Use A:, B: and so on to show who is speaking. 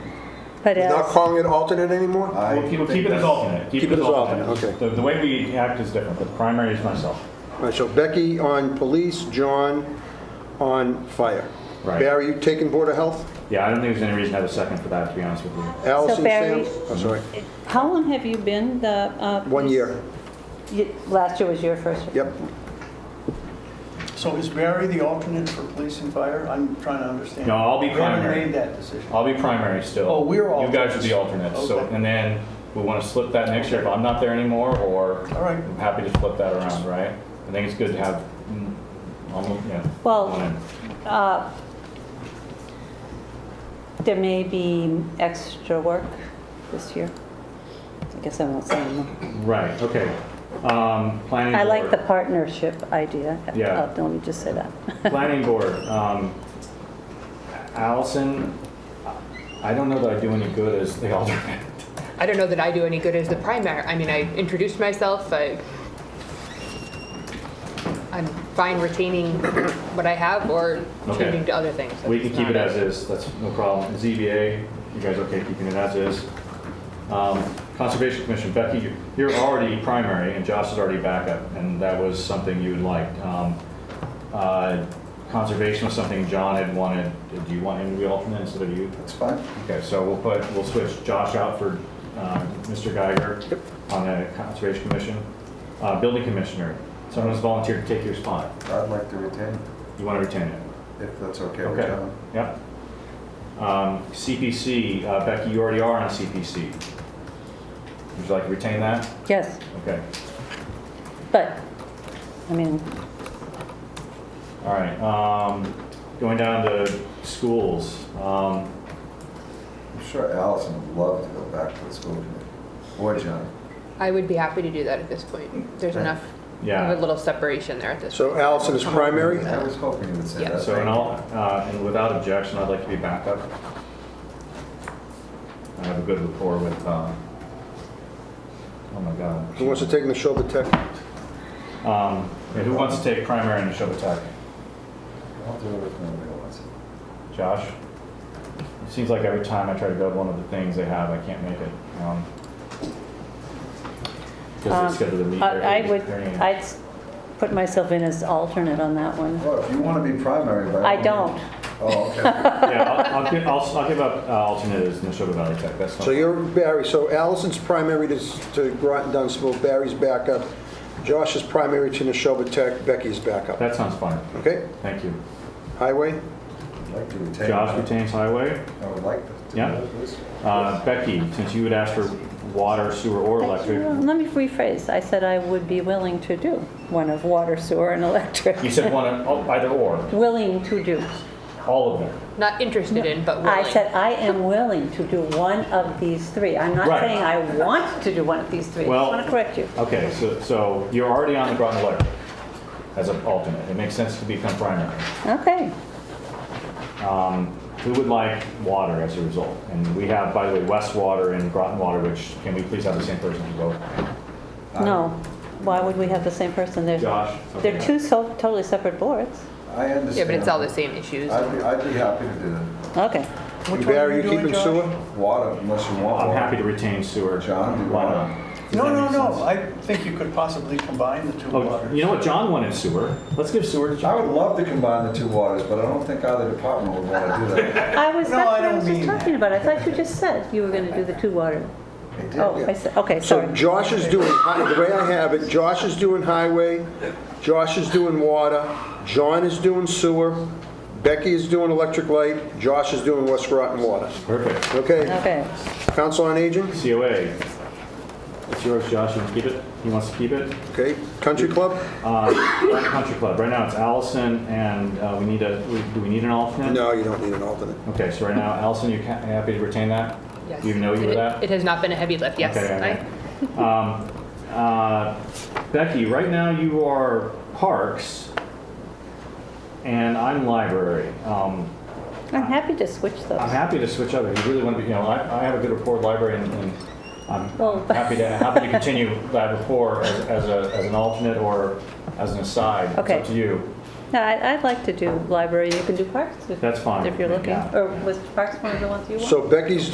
A: But uh,
B: We're Not
A: as,
B: calling it alternate anymore?
C: We'll keep, we'll keep it as alternate.
B: Keep it as alternate, okay.
C: The, the way we act is different, but the primary is myself.
B: All right, so Becky on police, John on fire.
C: Right.
B: Barry, you taking Board of Health?
C: Yeah, I don't think there's any reason to have a second for that, to be honest with you.
B: Allison, Sam?
A: Barry-
B: Oh, sorry.
A: how long have you been the? uh,
B: One year.
A: you- Last year was your first year?
B: Yep.
D: So is Barry the alternate for police and fire? I'm trying to understand.
C: No, I'll be
D: We
C: primary.
D: haven't made that decision.
C: I'll be primary still.
D: Oh, we're
C: You guys are the alternates, so,
D: Okay.
C: and then we want to slip that next year if I'm not there anymore, or
D: All right.
C: I'm happy to flip that around, right? I think it's good to have, mm, almost, yeah.
A: Well-
C: one in.
A: Uh, There may be extra work this year. I guess I won't say anymore.
C: Right, okay. Um, Planning
A: I like the
C: board.
A: partnership idea.
C: Yeah.
A: Uh, Let me just say that.
C: Planning board. um, Allison, I don't know that I do any good as the alternate.
E: I don't know that I do any good as the primary. I mean, I introduced myself. I, I'm fine retaining what I have or
C: Okay.
E: changing to other things.
C: We can
E: It's
C: keep it
E: not-
C: as is, that's no problem. ZBA, you guys okay keeping it as is? Um, Conservation Commission, Becky, you- you're already primary and Josh is already backup, and that was something you liked. Um, uh, Conservation was something John had wanted, do you want him to be alternate instead of you?
F: That's fine.
C: Okay, so we'll put, we'll switch Josh out for um, Mr. Geiger on the Conservation Commission. Uh, Building Commissioner, someone has volunteered to take your spot.
F: I'd like to retain,
C: You want to retain it?
F: if that's okay with
C: Okay,
F: John.
C: yep. Um, CPC, uh, Becky, you already are on CPC. Would you like to retain that?
A: Yes,
C: Okay,
A: but, I mean,
C: all right. Um, Going down to schools, um,
F: I'm sure Allison would love to go back to the school committee, or John.
E: I would be happy to do that at this point. There's enough of a
C: yeah.
E: little separation there at this.
B: So Allison is primary?
F: I was hoping you would say
E: Yeah.
F: that.
C: So, and all, uh, and without objection, I'd like to be backup. I have a good rapport with, um, oh my God.
B: Who wants to take Michelle Tech?
C: Um, yeah, Who wants to take primary in the Neshoba Tech?
F: I'll do it if nobody wants it.
C: Josh? It seems like every time I try to go to one of the things they have, I can't make it. um, Because
A: um,
C: they schedule the meet.
A: I I
C: their-
A: would,
C: their meeting.
A: I'd s- put myself in as alternate on that one.
F: Well, if you want to be primary, but.
A: I don't.
F: Oh, okay.
C: Yeah, I'll- I'll give, I'll, I'll give up uh, alternate as Neshoba Valley Tech, that's
B: So
C: not,
B: you're Barry, so Allison's primary to to Groton Dunstable, Barry's backup, Josh is primary to Neshoba Tech, Becky's backup.
C: that sounds fine.
B: Okay,
C: Thank you.
B: highway?
F: I'd like to retain.
C: Josh
F: that.
C: retains highway.
F: I would like to. do
C: Yeah.
F: that this way.
C: Uh, Becky, since you would ask for water, sewer, or electric,
A: Let me rephrase. I said I would be willing to do one of water, sewer, and electric.
C: you said one, of- oh, either or,
A: Willing to do.
C: all of them.
E: Not interested in, but willing.
A: I said I am willing to do one of these three. I'm not
C: Right.
A: saying I want to do one of these three. I
C: Well-
A: just want to correct you.
C: Okay, so, so you're already on the Groton Electric as an alternate. It makes sense to become primary.
A: Okay.
C: Um, Who would like water as a result? And we have, by the way, West Water and Groton Water, which, can we please have the same person to vote?
A: No. Why would we have the same person? They're,
C: Josh?
A: they're two so, totally separate boards.
F: I understand.
E: Yeah, but it's all the same issues.
F: I'd be, I'd be happy to do that.
A: Okay.
D: Which one are
B: Barry,
D: you
B: you
D: doing,
B: keeping
D: Josh?
B: sewer?
F: Water, unless you want.
C: I'm
F: water.
C: happy to retain sewer.
F: John, do you
C: Why
F: want
C: not?
D: No, no, no, I think you could possibly combine the two
C: Oh,
D: waters.
C: you know what, John wanted sewer. Let's give sewer to
F: I
C: John.
F: would love to combine the two waters, but I don't think either department would want to do that.
A: I was,
D: No,
A: that's
D: I
A: what I
D: don't
A: was just
D: mean
A: talking about. I thought you just said you were going to do the two water.
F: They did,
A: Oh,
F: yeah.
A: I said, okay,
B: So
A: sorry.
B: Josh is doing, hi- the way I have it, Josh is doing highway, Josh is doing water, John is doing sewer, Becky is doing electric light, Josh is doing West Groton Water.
C: Perfect.
B: Okay,
A: Okay.
B: Council on Aging,
C: COA. It's yours, Josh, you can keep it? He wants to keep it?
B: okay, Country Club?
C: Uh, Country Club, right now it's Allison and uh, we need a, we- do we need an alternate?
B: No, you don't need an alternate.
C: Okay, so right now, Allison, you ca- happy to retain that?
E: Yes.
C: You know you were
E: It-
C: that?
E: It has not been a heavy lift, yes.
C: Okay,
E: I-
C: okay. Um, uh, Becky, right now you are parks, and I'm library. Um,
A: I'm happy to switch those.
C: I'm happy to switch over. You really want to be, you know, I, I have a good rapport with library, and, and I'm
A: Well-
C: happy to happy to continue that rapport as, as, a, as an alternate or as an aside.
A: Okay.
C: It's up to you.
A: No, I- I'd like to do library. You can do parks if
C: That's fine
A: if you're
C: with me,
A: looking.
C: yeah.
A: Or was parks one of the ones you want?
B: So Becky's